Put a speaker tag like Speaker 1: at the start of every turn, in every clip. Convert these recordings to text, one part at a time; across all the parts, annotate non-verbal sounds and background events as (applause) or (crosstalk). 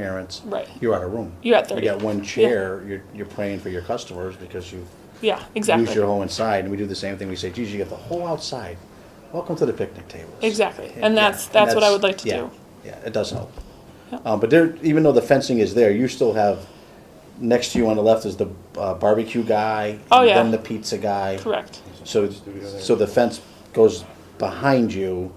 Speaker 1: parents.
Speaker 2: Right.
Speaker 1: You're out of room.
Speaker 2: You're at 30.
Speaker 1: You got one chair, you're, you're praying for your customers because you
Speaker 2: Yeah,
Speaker 1: use your
Speaker 2: exactly.
Speaker 1: whole inside, and we do the same thing, we say, geez, you got the whole outside, welcome to the picnic tables.
Speaker 2: Exactly.
Speaker 1: Yeah,
Speaker 2: And that's,
Speaker 1: and
Speaker 2: that's what I would like to
Speaker 1: yeah,
Speaker 2: do.
Speaker 1: Yeah, it does help.
Speaker 2: Yeah.
Speaker 1: Um, but there, even though the fencing is there, you still have, next to you on the left is the uh, barbecue guy.
Speaker 2: Oh,
Speaker 1: and
Speaker 2: yeah.
Speaker 1: Then the pizza guy.
Speaker 2: Correct.
Speaker 1: So, so the fence goes behind you,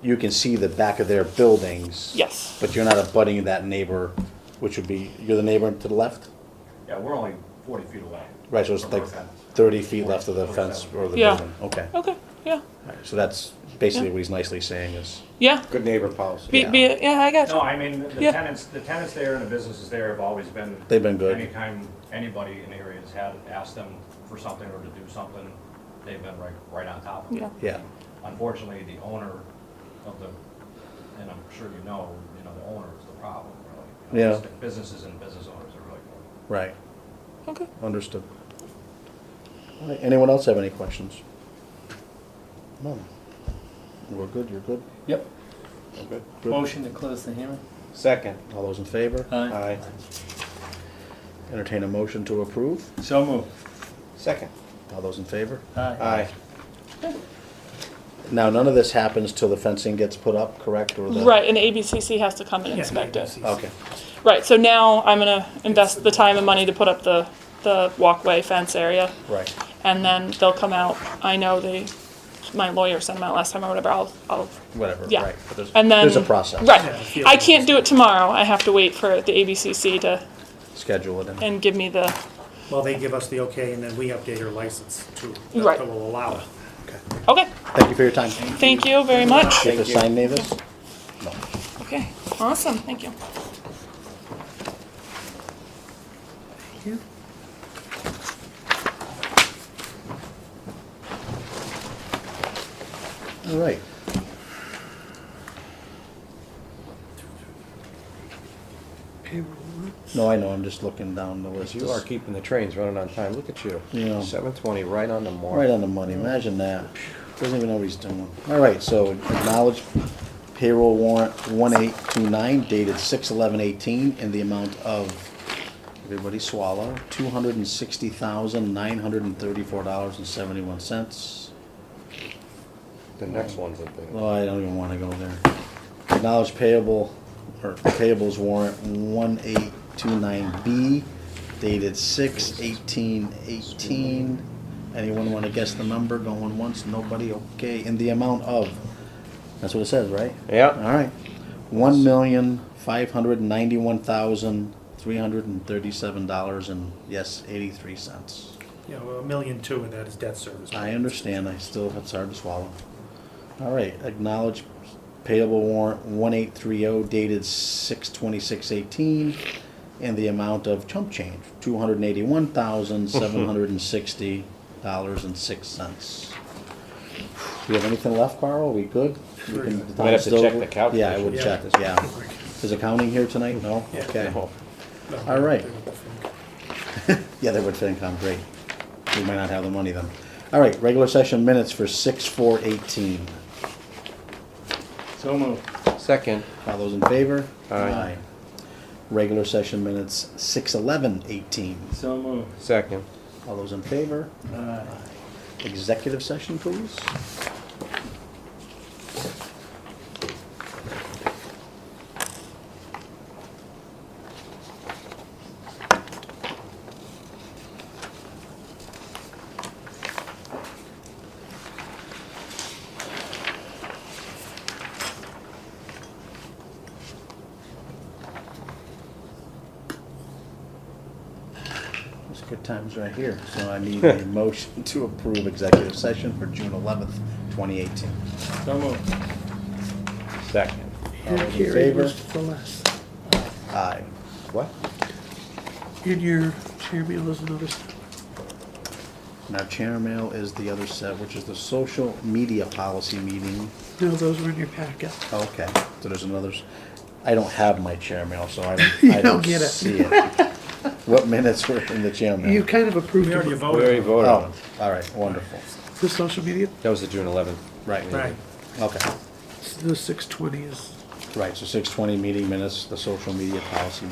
Speaker 1: you can see the back of their buildings.
Speaker 2: Yes.
Speaker 1: But you're not abutting that neighbor, which would be, you're the neighbor to the left?
Speaker 3: Yeah, we're only forty feet away.
Speaker 1: Right, so it's
Speaker 3: From
Speaker 1: like
Speaker 3: our fence.
Speaker 1: thirty feet left of the fence or the
Speaker 2: Yeah.
Speaker 1: building, okay.
Speaker 2: Okay, yeah.
Speaker 1: Alright, So that's basically what he's nicely saying is,
Speaker 2: Yeah.
Speaker 4: Good neighbor policy.
Speaker 2: Be, be, yeah, I got you.
Speaker 3: No, I mean, the
Speaker 2: Yeah.
Speaker 3: tenants, the tenants there and the businesses there have always been.
Speaker 1: They've been good.
Speaker 3: Anytime anybody in the area has had, asked them for something or to do something, they've been right, right on top of it.
Speaker 2: Yeah.
Speaker 1: yeah,
Speaker 3: Unfortunately, the owner of the, and I'm sure you know, you know, the owner is the problem, really. You know,
Speaker 1: Yeah.
Speaker 3: it's the Businesses and business owners are really,
Speaker 1: right,
Speaker 2: Okay.
Speaker 1: understood. Alright, Anyone else have any questions? None. We're good, you're good?
Speaker 5: Yep.
Speaker 1: Good. Good.
Speaker 5: Motion to close the hearing.
Speaker 4: Second.
Speaker 1: All those in favor?
Speaker 5: Aye.
Speaker 1: Entertain a motion to approve?
Speaker 5: So moved.
Speaker 4: Second.
Speaker 1: All those in favor?
Speaker 5: Aye.
Speaker 4: Aye.
Speaker 1: Now, none of this happens till the fencing gets put up, correct, or the?
Speaker 2: Right, and the ABCC has to come and inspect it.
Speaker 1: Okay,
Speaker 2: Right, so now I'm gonna invest the time and money to put up the, the walkway fence area.
Speaker 1: right,
Speaker 2: And then they'll come out. I know they, my lawyer sent them out last time or whatever. I'll, I'll,
Speaker 1: whatever,
Speaker 2: Yeah.
Speaker 1: right. But there's-
Speaker 2: and then.
Speaker 1: There's a process.
Speaker 2: Right. I can't do it tomorrow. I have to wait for the ABCC to,
Speaker 1: Schedule it in.
Speaker 2: and give me the,
Speaker 6: Well, they give us the okay, and then we update our license to,
Speaker 2: Right.
Speaker 6: that will allow it.
Speaker 2: okay.
Speaker 1: Thank you for your time.
Speaker 2: Thank you very much.
Speaker 1: Get to sign Davis? No.
Speaker 2: Okay, awesome, thank you.
Speaker 1: All right. No, I know, I'm just looking down the list.
Speaker 4: You are keeping the trains running on time. Look at you.
Speaker 1: Yeah.
Speaker 4: Seven twenty, right on the mark.
Speaker 1: Right on the money, imagine that. Doesn't even know what he's doing. All right, so acknowledge payroll warrant one eight two nine dated six eleven eighteen in the amount of, everybody swallow, two hundred and sixty thousand, nine hundred and thirty-four dollars and seventy-one cents.
Speaker 4: The next one's a big. one.
Speaker 1: Well, I don't even wanna go there. Acknowledge payable, or payables warrant one eight two nine B dated six eighteen eighteen. Anyone wanna guess the number? Going once, nobody, okay, in the amount of, that's what it says, right?
Speaker 4: Yeah.
Speaker 1: Alright, one million, five hundred and ninety-one thousand, three hundred and thirty-seven dollars and, yes, eighty-three cents.
Speaker 6: You know, a million two, and that is debt service.
Speaker 1: I understand, I still, it's hard to swallow. All right, acknowledge payable warrant one eight three oh dated six twenty-six eighteen in the amount of chump change, two hundred and eighty-one
Speaker 4: (laughs)
Speaker 1: thousand, seven hundred and sixty dollars and six cents. Do you have anything left, Carl? Are we good? We can- the
Speaker 4: Might have to
Speaker 1: time's
Speaker 4: check
Speaker 1: still-
Speaker 4: the calculation.
Speaker 1: Yeah, I would
Speaker 6: Yeah.
Speaker 1: check, yeah. Is accounting here tonight? No?
Speaker 6: Yeah.
Speaker 1: Okay.
Speaker 4: Oh,
Speaker 1: all right. Yeah, they would FinCom, great. We might not have the money then. All right, regular session minutes for six, four, eighteen.
Speaker 5: So moved.
Speaker 4: Second.
Speaker 1: All those in favor?
Speaker 4: Aye.
Speaker 1: Regular session minutes, six, eleven, eighteen.
Speaker 5: So moved.
Speaker 4: Second.
Speaker 1: All those in favor?
Speaker 5: Aye.
Speaker 1: Executive session, please. It's good times right here, so I need a motion to approve executive session for June eleventh, twenty eighteen.
Speaker 5: So moved.
Speaker 4: Second.
Speaker 1: All
Speaker 7: Your
Speaker 1: those in
Speaker 7: carry
Speaker 1: favor?
Speaker 7: was the less.
Speaker 1: Aye. What?
Speaker 7: In your chair meal is another stuff.
Speaker 1: Now, chair mail is the other set, which is the social media policy meeting.
Speaker 7: No, those were in your packet.
Speaker 1: Oh, Okay, so there's another, s- I don't have my chair mail, so
Speaker 7: (laughs)
Speaker 1: I
Speaker 7: You
Speaker 1: don't, I
Speaker 7: don't
Speaker 1: don't
Speaker 7: get it.
Speaker 1: see
Speaker 7: (laughs)
Speaker 1: it. What minutes were in the chair mail?
Speaker 7: You kind of approved
Speaker 6: We already
Speaker 7: them.
Speaker 4: We already
Speaker 6: voted.
Speaker 1: Oh,
Speaker 4: voted on it.
Speaker 1: all right, wonderful,
Speaker 7: the social media.
Speaker 4: That was the June eleventh.
Speaker 1: right,
Speaker 6: Right.
Speaker 1: okay.
Speaker 7: The six twenty is
Speaker 1: Right, so six twenty meeting minutes, the social media policy